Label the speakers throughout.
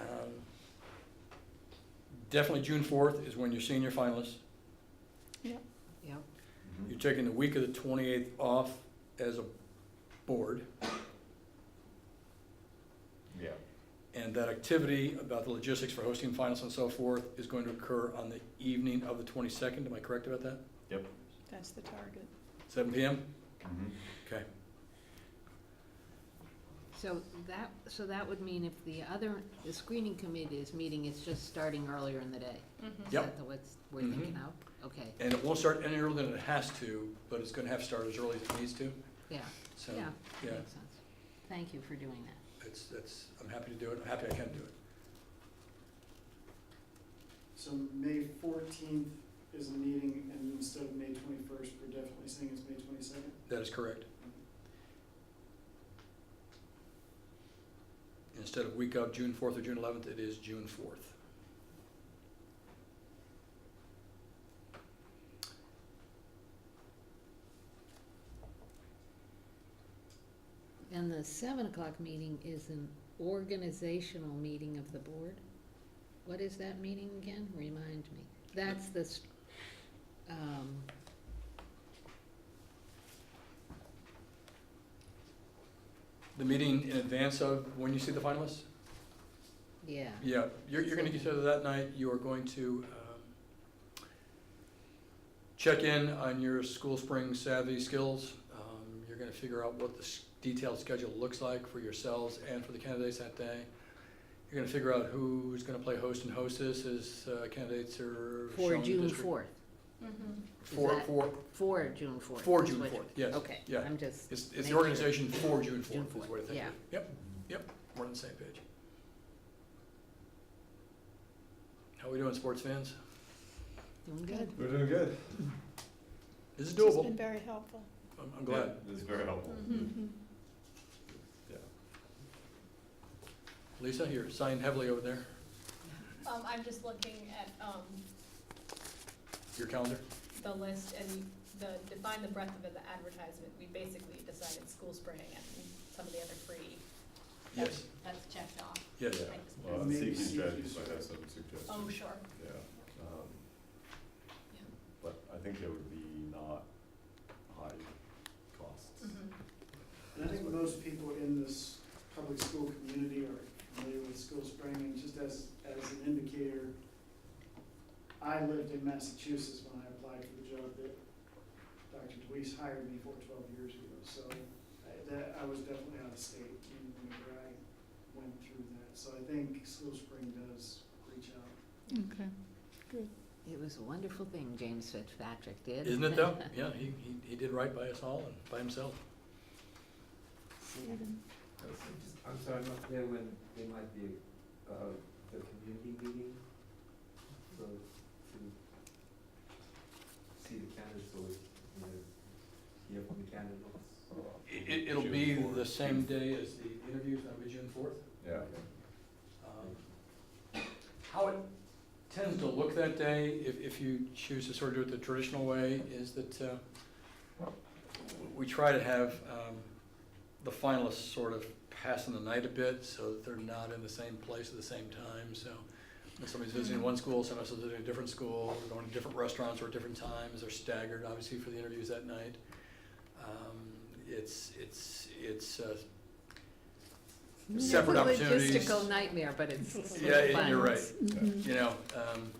Speaker 1: Um, definitely June fourth is when you're senior finalists.
Speaker 2: Yeah.
Speaker 3: Mm-hmm.
Speaker 1: You're taking the week of the twenty-eighth off as a board,
Speaker 3: Yeah.
Speaker 1: and that activity about the logistics for hosting finals and so forth is going to occur on the evening of the twenty-second. Am I correct about that?
Speaker 4: That's the target.
Speaker 1: Seven PM? Okay.
Speaker 2: So that, so that would mean if the other, the screening committee is meeting, it's just starting earlier in the day? Is
Speaker 1: Yep.
Speaker 2: that the- what's we're
Speaker 1: Mhm.
Speaker 2: thinking of? Okay,
Speaker 1: And it won't start any earlier than it has to, but it's gonna have to start as early as it needs to,
Speaker 2: yeah,
Speaker 1: so,
Speaker 2: yeah,
Speaker 1: yeah,
Speaker 2: makes sense. Thank you for doing that.
Speaker 1: it's, it's, I'm happy to do it, I'm happy I can do it.
Speaker 5: So May fourteenth is a meeting, and instead of May twenty-first, we're definitely saying it's May twenty-second.
Speaker 1: That is correct. Instead of week of June fourth or June eleventh, it is June fourth.
Speaker 2: And the seven o'clock meeting is an organizational meeting of the board? What is that meeting again? Remind me. That's the, s- um,
Speaker 1: The meeting in advance of when you see the finalists?
Speaker 2: yeah,
Speaker 1: Yeah, you're, you're gonna consider that night, you are going to, um, check in on your school spring savvy skills. Um, you're gonna figure out what the s- detailed schedule looks like for yourselves and for the candidates that day. You're gonna figure out who's gonna play host and hostess as uh, candidates are shown
Speaker 2: for
Speaker 1: in the
Speaker 2: June
Speaker 1: district.
Speaker 2: fourth,
Speaker 1: For,
Speaker 2: that-
Speaker 1: for,
Speaker 2: for June fourth.
Speaker 1: For
Speaker 2: is
Speaker 1: June
Speaker 2: what-
Speaker 1: 4th, yes,
Speaker 2: Okay,
Speaker 1: yeah.
Speaker 2: I'm just,
Speaker 1: it's,
Speaker 2: Make
Speaker 1: it's the
Speaker 2: sure.
Speaker 1: organization for June
Speaker 2: June
Speaker 1: fourth is
Speaker 2: 4th,
Speaker 1: what I think.
Speaker 2: yeah.
Speaker 1: Yep, yep, we're on the same page. How we doing, sports fans?
Speaker 2: doing good.
Speaker 3: We're doing good.
Speaker 1: This is
Speaker 4: It's
Speaker 1: doable.
Speaker 4: been very helpful.
Speaker 1: I'm, I'm glad.
Speaker 3: This is very helpful.
Speaker 6: Mm-hmm.
Speaker 1: Lisa, you're signed heavily over there,
Speaker 6: Um, I'm just looking at, um,
Speaker 1: your calendar.
Speaker 6: the list and the, define the breadth of the advertisement, we basically decided school spring and some of the other free.
Speaker 1: Yes,
Speaker 6: That's checked off.
Speaker 1: yes.
Speaker 3: Yeah.
Speaker 6: Thanks.
Speaker 3: Well, and
Speaker 5: Maybe
Speaker 3: safety Uh,
Speaker 5: safety
Speaker 3: strategies might
Speaker 5: strategy.
Speaker 3: have some suggestions.
Speaker 6: Oh, sure.
Speaker 3: Yeah. um,
Speaker 6: Yeah.
Speaker 3: But I think there would be not high costs.
Speaker 6: Mhm.
Speaker 5: And I think most people in this public school community are familiar with school spring, and just as, as an indicator, I lived in Massachusetts when I applied for the job that Dr. Deweese hired me for twelve years ago, so I, that, I was definitely out of state whenever I went through that, so I think school spring does reach out.
Speaker 4: Okay.
Speaker 2: It was a wonderful thing James Fitzpatrick did.
Speaker 1: Isn't it though? Yeah, he, he, he did right by us all and by himself.
Speaker 7: I'm sorry, I'm not clear when they might be, uh, the community meeting, so to see the candidates or, you know, hear from the candidates.
Speaker 1: It, it- it'll be
Speaker 3: June
Speaker 1: the
Speaker 3: 4th.
Speaker 1: same day as the interviews, that'll be June fourth.
Speaker 3: Yeah.
Speaker 1: um, How it tends to look that day, if, if you choose to sort of do it the traditional way, is that, uh, w- we try to have, um, the finalists sort of passing the night a bit, so that they're not in the same place at the same time, so. When somebody's visiting one school, somebody's visiting a different school, they're going to different restaurants or different times, they're staggered, obviously, for the interviews that night. Um, it's, it's, it's, uh, Separate
Speaker 2: It's a
Speaker 1: opportunities.
Speaker 2: Logistical nightmare, but it's
Speaker 1: yeah, it- you're right,
Speaker 4: Mm-hmm.
Speaker 3: Mhm.
Speaker 1: you know, um,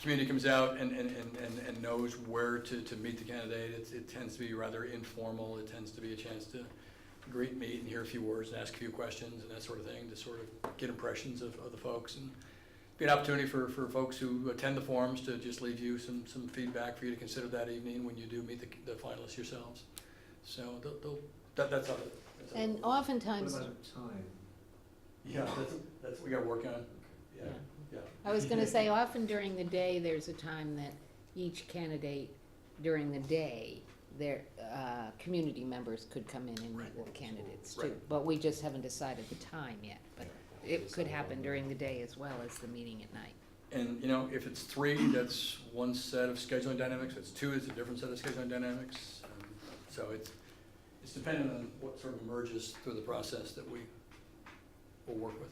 Speaker 1: community comes out and, and, and, and- and knows where to, to meet the candidate. It's, it tends to be rather informal. It tends to be a chance to greet, meet, and hear a few words and ask a few questions and that sort of thing to sort of get impressions of, of the folks and be an opportunity for, for folks who attend the forums to just leave you some, some feedback for you to consider that evening when you do meet the, the finalists yourselves. So they'll, they'll, that, that's how. it- that's how it
Speaker 2: And
Speaker 1: works.
Speaker 7: What
Speaker 2: oftentimes,
Speaker 7: about time?
Speaker 1: Yeah, that's, that's what we gotta work on. Yeah,
Speaker 2: Yeah.
Speaker 1: yeah.
Speaker 2: I was gonna say, often during the day, there's a time that each candidate, during the day, their, uh, community members could come in and meet
Speaker 1: Right.
Speaker 2: with candidates too.
Speaker 1: Right.
Speaker 2: But we just haven't decided the time yet, but it could happen during the day as well as the meeting at night.
Speaker 1: And, you know, if it's three, that's one set of scheduling dynamics, if it's two, it's a different set of scheduling dynamics. Um, So it's, it's dependent on what sort of emerges through the process that we will work with.